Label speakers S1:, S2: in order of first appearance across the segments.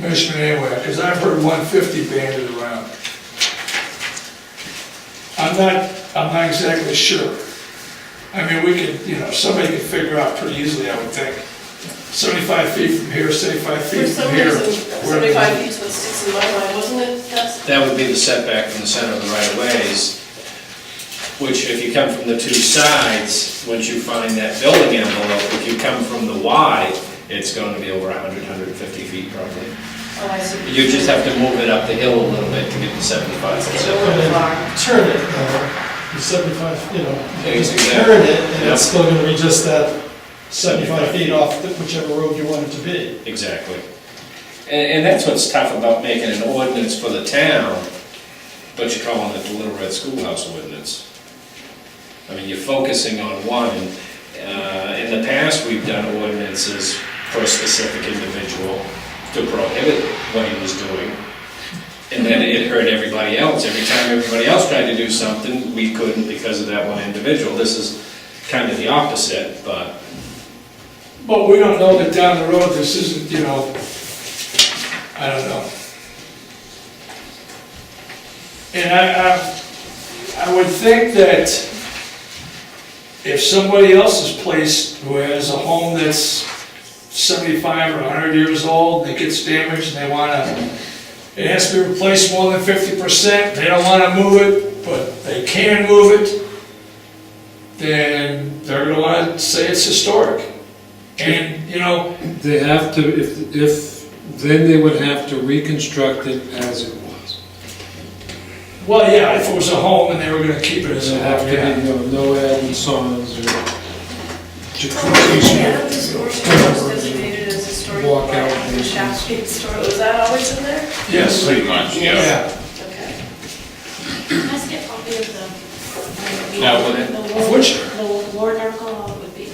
S1: measurement anywhere, because I've heard one fifty banded around. I'm not, I'm not exactly sure. I mean, we could, you know, somebody could figure out pretty easily, I would think. Seventy-five feet from here, seventy-five
S2: For
S1: feet
S2: some
S1: from here.
S2: reason,
S1: where-
S2: seventy-five feet's what sticks in my mind, wasn't it? That's,
S3: That would be the setback from the center of the right of ways, which if you come from the two sides, once you find that building envelope, if you come from the Y, it's going to be over 100, 150 feet probably.
S2: oh, I see.
S3: You just have to move it up the hill a little bit to get to 75.
S2: It's a little far.
S4: turn it though, the seventy-five, you know,
S3: Exactly.
S4: turn it, and
S3: Yep.
S4: it's still gonna be just that seventy-five feet off the- whichever road you want it to be.
S3: Exactly. And, and that's what's tough about making an ordinance for the town, but you're calling it the Little Red Schoolhouse ordinance. I mean, you're focusing on one, uh, in the past, we've done ordinances for a specific individual to prohibit what he was doing. And then it hurt everybody else, every time everybody else tried to do something, we couldn't because of that one individual. This is kind of the opposite, but.
S1: But we don't know that down the road, this isn't, you know, I don't know. And I, I, I would think that if somebody else is placed who has a home that's seventy-five or hundred years old, that gets damaged and they wanna, it has to be replaced more than fifty percent, they don't wanna move it, but they can move it, then they're gonna wanna say it's historic. And, you know,
S5: They have to, if, if, then they would have to reconstruct it as it was.
S1: well, yeah, if it was a home and they were gonna keep it as a
S5: It'd have
S1: home,
S5: to be,
S1: yeah.
S5: you know, no added songs or jacuzzis
S2: Oh, Yeah,
S5: or
S2: this portion was designated as historic.
S5: Walk out
S2: park, the
S5: and-
S2: Shaft Street store, was that always in there?
S1: Yes,
S6: Pretty much, yeah.
S1: yeah.
S2: Okay.
S7: Can I get a copy of the?
S3: Yeah, I would.
S7: The warrant-
S1: Which?
S7: The warrant article how it would be.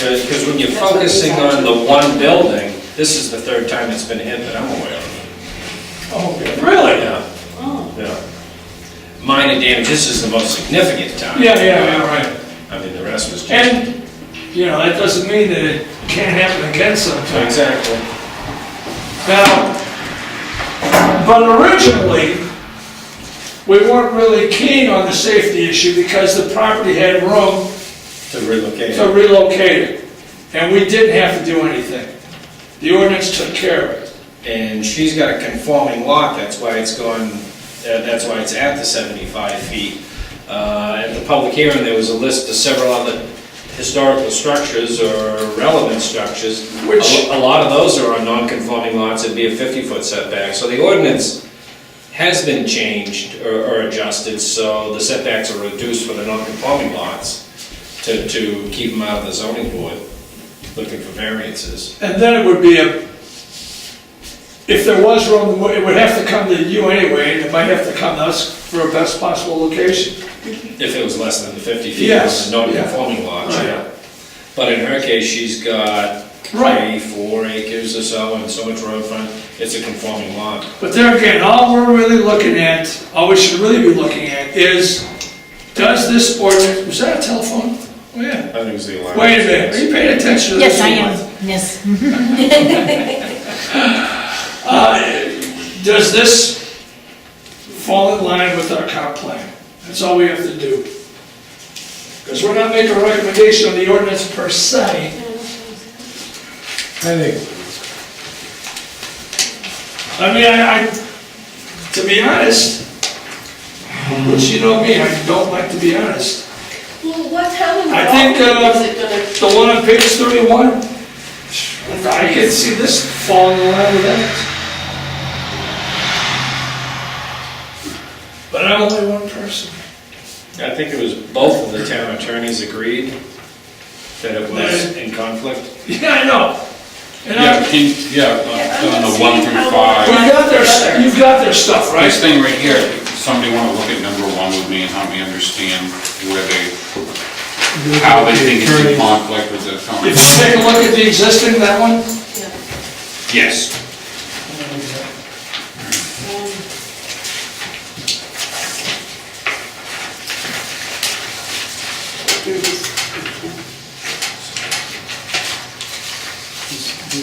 S3: Because when you're focusing on the one building, this is the third time it's been hit that I'm aware of.
S1: Okay.
S3: Really? Yeah,
S7: Oh,
S3: yeah. Minor damage, this is the most significant time.
S1: Yeah, yeah, yeah, right.
S3: I mean, the rest was just.
S1: And, you know, that doesn't mean that it can't happen again sometime.
S3: Exactly.
S1: Now, but originally, we weren't really keen on the safety issue because the property had room
S3: To relocate.
S1: to relocate it. And we didn't have to do anything. The ordinance took care of it.
S3: And she's got a conforming lot, that's why it's going, that- that's why it's at the 75 feet. Uh, At the public hearing, there was a list of several other historical structures or relevant structures.
S1: Which-
S3: A a lot of those are on non-conforming lots, it'd be a 50-foot setback. So the ordinance has been changed or or adjusted, so the setbacks are reduced for the non-conforming lots to to keep them out of the zoning board, looking for variances.
S1: And then it would be a, if there was room, it would have to come to you anyway, and it might have to come to us for a best possible location.
S3: If it was less than the 50 feet, it
S1: Yes,
S3: was a non-conforming lot,
S1: Right.
S3: yeah. But in her case, she's got
S1: Right.
S3: three, four acres or so, and so much road front, it's a conforming lot.
S1: But there again, all we're really looking at, all we should really be looking at is, does this ordinance, was that a telephone? Oh,
S3: I
S1: yeah.
S3: think it was the allowance.
S1: Wait a minute, are you paying attention to this?
S8: Yes, I
S1: one?
S8: am, yes.
S1: Uh, Does this fall in line with our comp plan? That's all we have to do. Because we're not making a recommendation on the ordinance per se.
S5: I think,
S1: I mean, I, I, to be honest, which you know me, I don't like to be honest.
S2: Well, what town in
S1: I think, uh,
S2: Raleigh is it
S1: The one on page thirty-one, I can see this falling in line with that. But I'm only one person.
S3: I think it was both of the town attorneys agreed that it was
S1: That-
S3: in conflict.
S1: Yeah, I know. And
S6: Yeah,
S1: I,
S6: he, yeah, uh,
S2: Yeah,
S6: on
S2: I'm
S6: the
S2: just
S6: one
S2: saying
S6: through
S2: how-
S1: you
S6: five.
S1: got their, you've got their stuff, right?
S6: This thing right here, somebody wanna look at number one with me and help me understand where they, how they think it's in conflict with the
S1: If
S6: town.
S1: you take a look at the existing, that one,
S6: Yes.
S2: gonna?
S5: This-